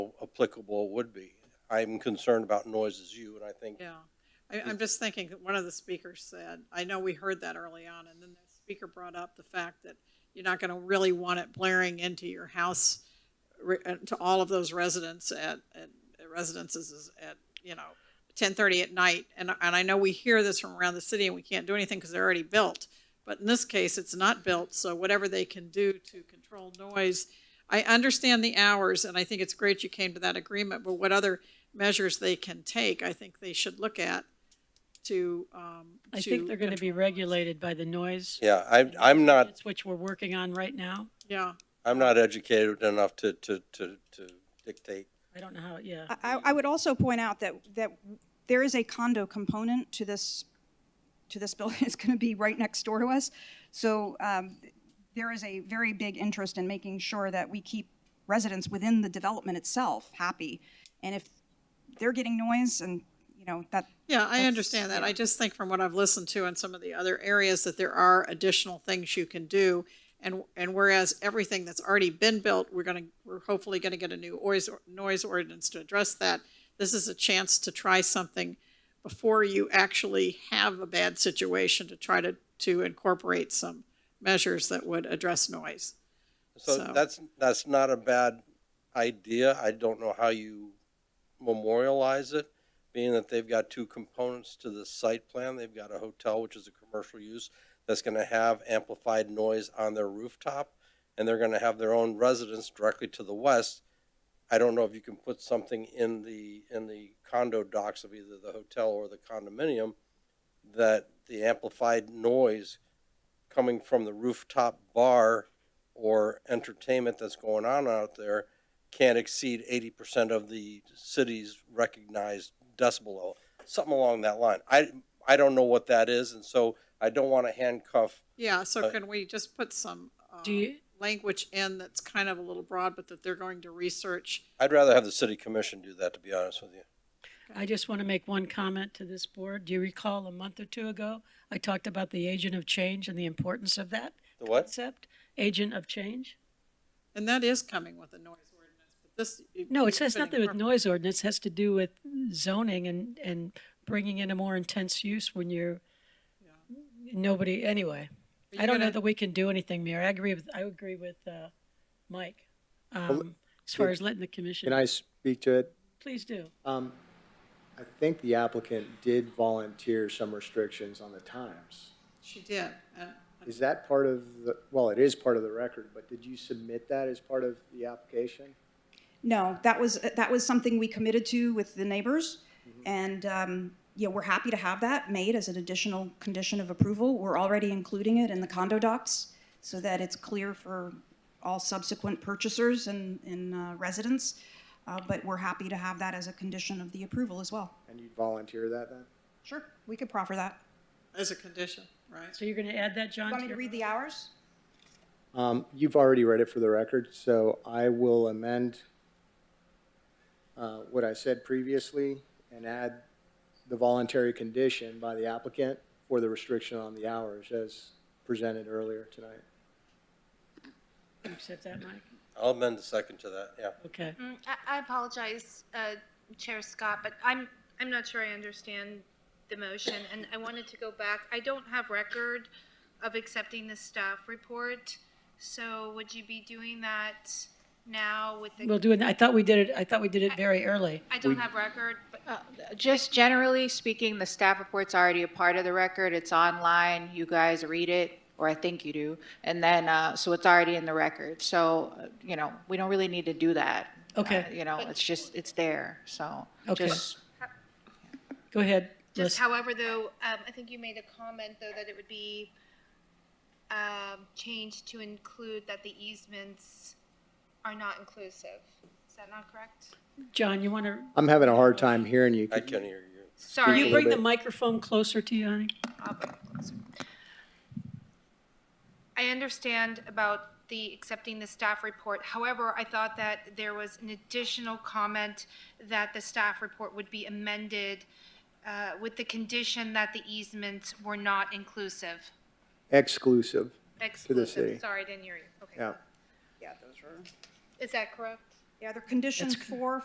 applicable would be. I'm concerned about noise as you, and I think, Yeah, I, I'm just thinking, that one of the speakers said, I know we heard that early on, and then the speaker brought up the fact that you're not gonna really want it blaring into your house, re- uh, to all of those residents at, at at residences is at, you know, ten thirty at night, and, and I know we hear this from around the city, and we can't do anything because they're already built. But in this case, it's not built, so whatever they can do to control noise, I understand the hours, and I think it's great you came to that agreement, but what other measures they can take, I think they should look at to, um. I think they're going to be control noise. regulated by the noise. yeah, I'm, I'm not, ordinance, Which we're working on right now. Yeah, I'm not educated enough to, to, to, to dictate. I don't know how, yeah. I, I would also point out that, that there is a condo component to this, to this building. It's going to be right next door to us. So um, there is a very big interest in making sure that we keep residents within the development itself happy. And if they're getting noise and, you know, that, yeah, I understand that. I just think from what I've listened to in some of the other areas that there are additional things you can do. And, and whereas everything that's already been built, we're gonna, we're hopefully gonna get a new noise, noise ordinance to address that. This is a chance to try something before you actually have a bad situation to try to, to incorporate some measures that would address noise. So So- that's, that's not a bad idea. I don't know how you memorialize it, being that they've got two components to the site plan. They've got a hotel, which is a commercial use, that's gonna have amplified noise on their rooftop, and they're gonna have their own residence directly to the west. I don't know if you can put something in the, in the condo docks of either the hotel or the condominium that the amplified noise coming from the rooftop bar or entertainment that's going on out there can't exceed eighty percent of the city's recognized decibel level, something along that line. I, I don't know what that is, and so I don't want to handcuff. Yeah, so Uh, can we just put some, uh, Do you- language in that's kind of a little broad, but that they're going to research? I'd rather have the city commission do that, to be honest with you. I just want to make one comment to this board. Do you recall a month or two ago, I talked about the agent of change and the importance of that The what? concept? Agent of change? And that is coming with a noise ordinance, but this. No, it it's has nothing with noise ordinance, it has to do with zoning and, and bringing in a more intense use when you're, nobody, anyway. I don't know that we can do anything, Mayor. I agree with, I agree with, uh, Mike, um, as far as letting the Can commission, I speak to it? please do. Um, I think the applicant did volunteer some restrictions on the times. She did. uh, Is that part of the, well, it is part of the record, but did you submit that as part of the application? no, that was, that was something we committed to with the neighbors. And, um, yeah, we're happy to have that made as an additional condition of approval. We're already including it in the condo docs so that it's clear for all subsequent purchasers and, and uh, residents. Uh, but we're happy to have that as a condition of the approval as well. And you volunteer that then? Sure, we could proffer that. As a condition, right? So you're gonna add that, John? to Want me to your- read the hours? Um, you've already read it for the record, so I will amend uh, what I said previously and add the voluntary condition by the applicant for the restriction on the hours as presented earlier tonight. You Accept that, Mike? I'll amend the second to that, yeah. Okay. Mm, I I apologize, uh, Chair Scott, but I'm, I'm not sure I understand the motion, and I wanted to go back. I don't have record of accepting the staff report, so would you be doing that now with the? We'll do it, I thought we did it, I thought we did it very early. I don't have record, but Just generally speaking, the staff report's already a part of the record. It's online. You guys read it, or I think you do. And then, uh, so it's already in the record. So, uh, you know, we don't really need to do that. Okay. Uh, You know, it's just, it's there, so. Okay. just- Go ahead, just Liz. however, though, um, I think you made a comment, though, that it would be um, changed to include that the easements are not inclusive. Is that not correct? John, you wanna, I'm having a hard time hearing you. I can hear you. can Sorry. you bring the microphone closer to you, honey? I understand about the accepting the staff report. However, I thought that there was an additional comment that the staff report would be amended uh, with the condition that the easements were not inclusive. Exclusive. Exclusive. city. Sorry, I didn't hear you. Okay. Yeah. Is that correct? Yeah, there are conditions That's- four,